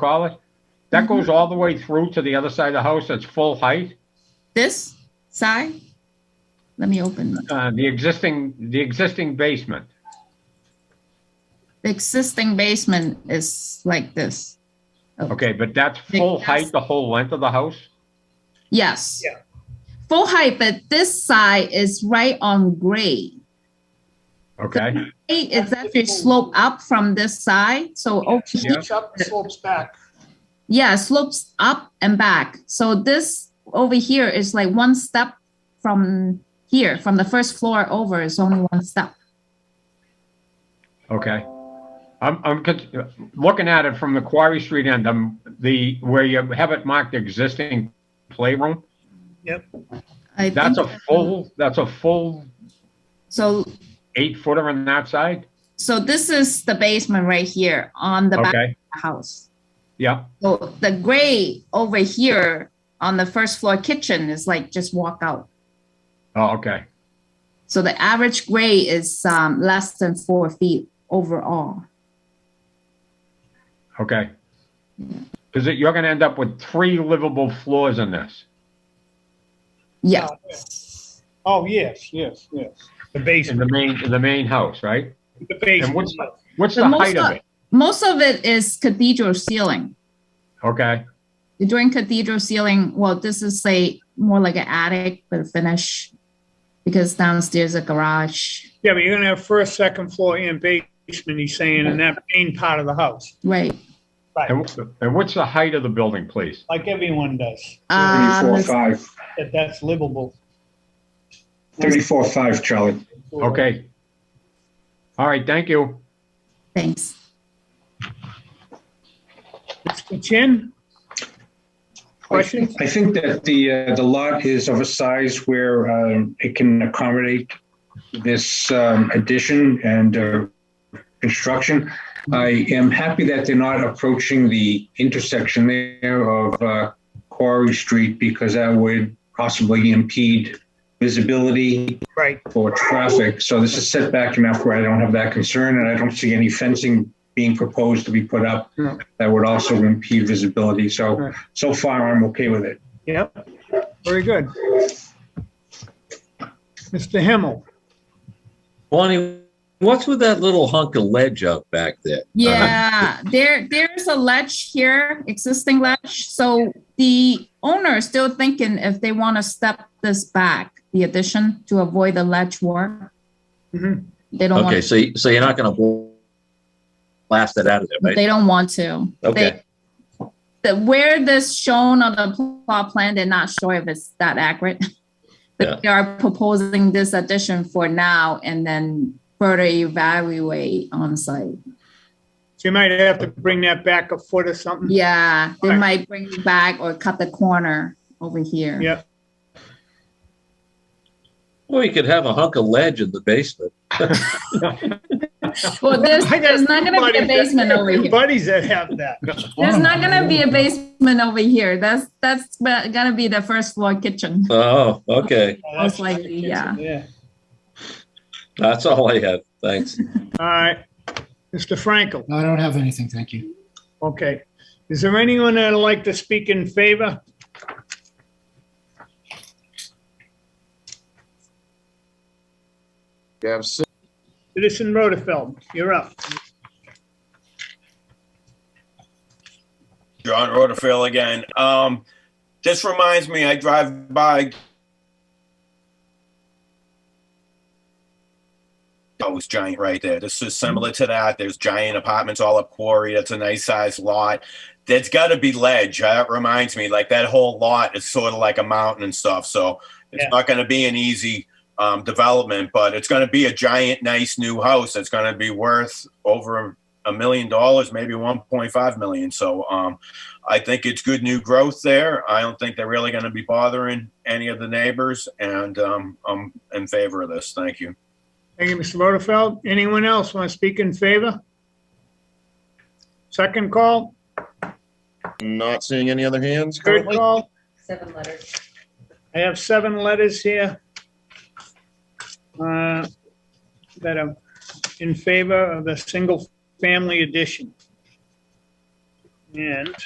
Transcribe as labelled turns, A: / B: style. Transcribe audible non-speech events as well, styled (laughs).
A: call it? That goes
B: Mm-hmm.
A: all the way through to the other side of the house, that's full height?
B: This side? Let me open the
A: Uh, the existing, the existing basement?
B: existing basement is like this.
A: Okay, but that's full
B: Yes.
A: height, the whole length of the house?
B: Yes.
C: Yeah.
B: Full height, but this side is right on grade.
A: Okay,
B: Hey, Is that you slope up from this side? So, okay.
A: Yeah.
C: Each up slopes back.
B: Yeah, slopes up and back. So this over here is like one step from here, from the first floor over is only one step.
A: okay. I'm, I'm con- looking at it from the Quarry Street end, um, the, where you have it marked existing playroom.
B: I
A: That's a
B: think-
A: full, that's a full
B: So,
A: eight footer on that side?
B: so this is the basement right here on the back of
A: Okay,
B: the house.
A: yeah,
B: So the gray over here on the first floor kitchen is like just walk out.
A: oh, okay,
B: So the average gray is um, less than four feet overall.
A: okay.
B: Mm-hmm.
A: Because you're gonna end up with three livable floors in this.
B: Yeah.
C: Uh, Oh, yes, yes, yes. The
A: in
C: basement.
A: the main, in the main house, right?
C: The
A: And
C: basement.
A: what's, what's
B: The
A: the
B: most
A: height of
B: of-
A: it?
B: Most of it is cathedral ceiling.
A: Okay,
B: During cathedral ceiling, well, this is a more like an attic but finish because downstairs a garage.
C: Yeah, but you're gonna have first, second floor and basement, he's saying, in that main part of the house.
B: Right.
A: and, wh- and what's the height of the building, please?
C: Like everyone does,
B: Um,
D: Thirty-four,
B: let's-
D: five.
C: that that's livable.
D: Thirty-four, five, Charlie.
A: Okay. All right, thank you.
B: thanks.
C: Mr. Chin? Questions?
D: I think that the, uh, the lot is of a size where, um, it can accommodate this, um, addition and, uh, construction. I am happy that they're not approaching the intersection there of, uh, Quarry Street because that would possibly impede visibility
C: Right,
D: for traffic. So this is set back enough where I don't have that concern, and I don't see any fencing being proposed to be put up
C: No.
D: that would also impede visibility. So,
C: Right.
D: so far, I'm okay with it.
C: yep, very good. Mr. Himmel?
E: Bonnie, what's with that little hunk of ledge out back there? Uh-huh.
B: Yeah,
E: (laughs)
B: there there's a ledge here, existing ledge. So the owner is still thinking if they want to step this back, the addition to avoid the ledge war.
C: Mhm.
B: They don't
E: Mm-hmm. Okay,
B: want.
E: so, so you're not gonna blast it out of there, right?
B: They don't want to.
E: Okay.
B: They- The where this shown on the plot plan, they're not sure if it's that accurate. (laughs)
E: Yeah.
B: But they are proposing this addition for now and then further evaluate on site.
C: So you might have to bring that back a foot or something?
B: Yeah, they
C: Right.
B: might bring you back or cut the corner over here.
C: Yeah.
E: Well, you could have a hunk of ledge in the basement.
C: (laughs)
B: Well, there's,
C: I got
B: there's not gonna be a
C: buddies that-
B: basement over here.
C: Buddies that have that.
B: There's not gonna be a basement over here. That's, that's ba- gonna be the first floor kitchen.
E: Oh, okay.
B: Most likely, yeah.
C: Yeah.
E: That's all I have. Thanks.
C: All right, Mr. Frankel?
F: No, I don't have anything, thank you.
C: Okay. Is there anyone that'd like to speak in favor?
G: You have six.
C: Citizen Rutherford, you're up.
H: John Rutherford again. Um, this reminds me, I drive by. Oh, it's giant right there. This is similar to that. There's giant apartments all up Quarry. That's a nice sized lot. There's got to be ledge. That reminds me, like that whole lot is sort of like a mountain and stuff. So it's
C: Yeah.
H: not going to be an easy um, development, but it's going to be a giant, nice new house that's going to be worth over a million dollars, maybe 1.5 million. So um, I think it's good new growth there. I don't think they're really going to be bothering any of the neighbors, and um, I'm in favor of this. Thank you.
C: Thank you, Mr. Rutherford. Anyone else want to speak in favor? Second call,
G: Not seeing any other hands
C: third
G: currently.
C: call.
I: Seven letters.
C: I have seven letters here uh, that are in favor of the single-family addition. And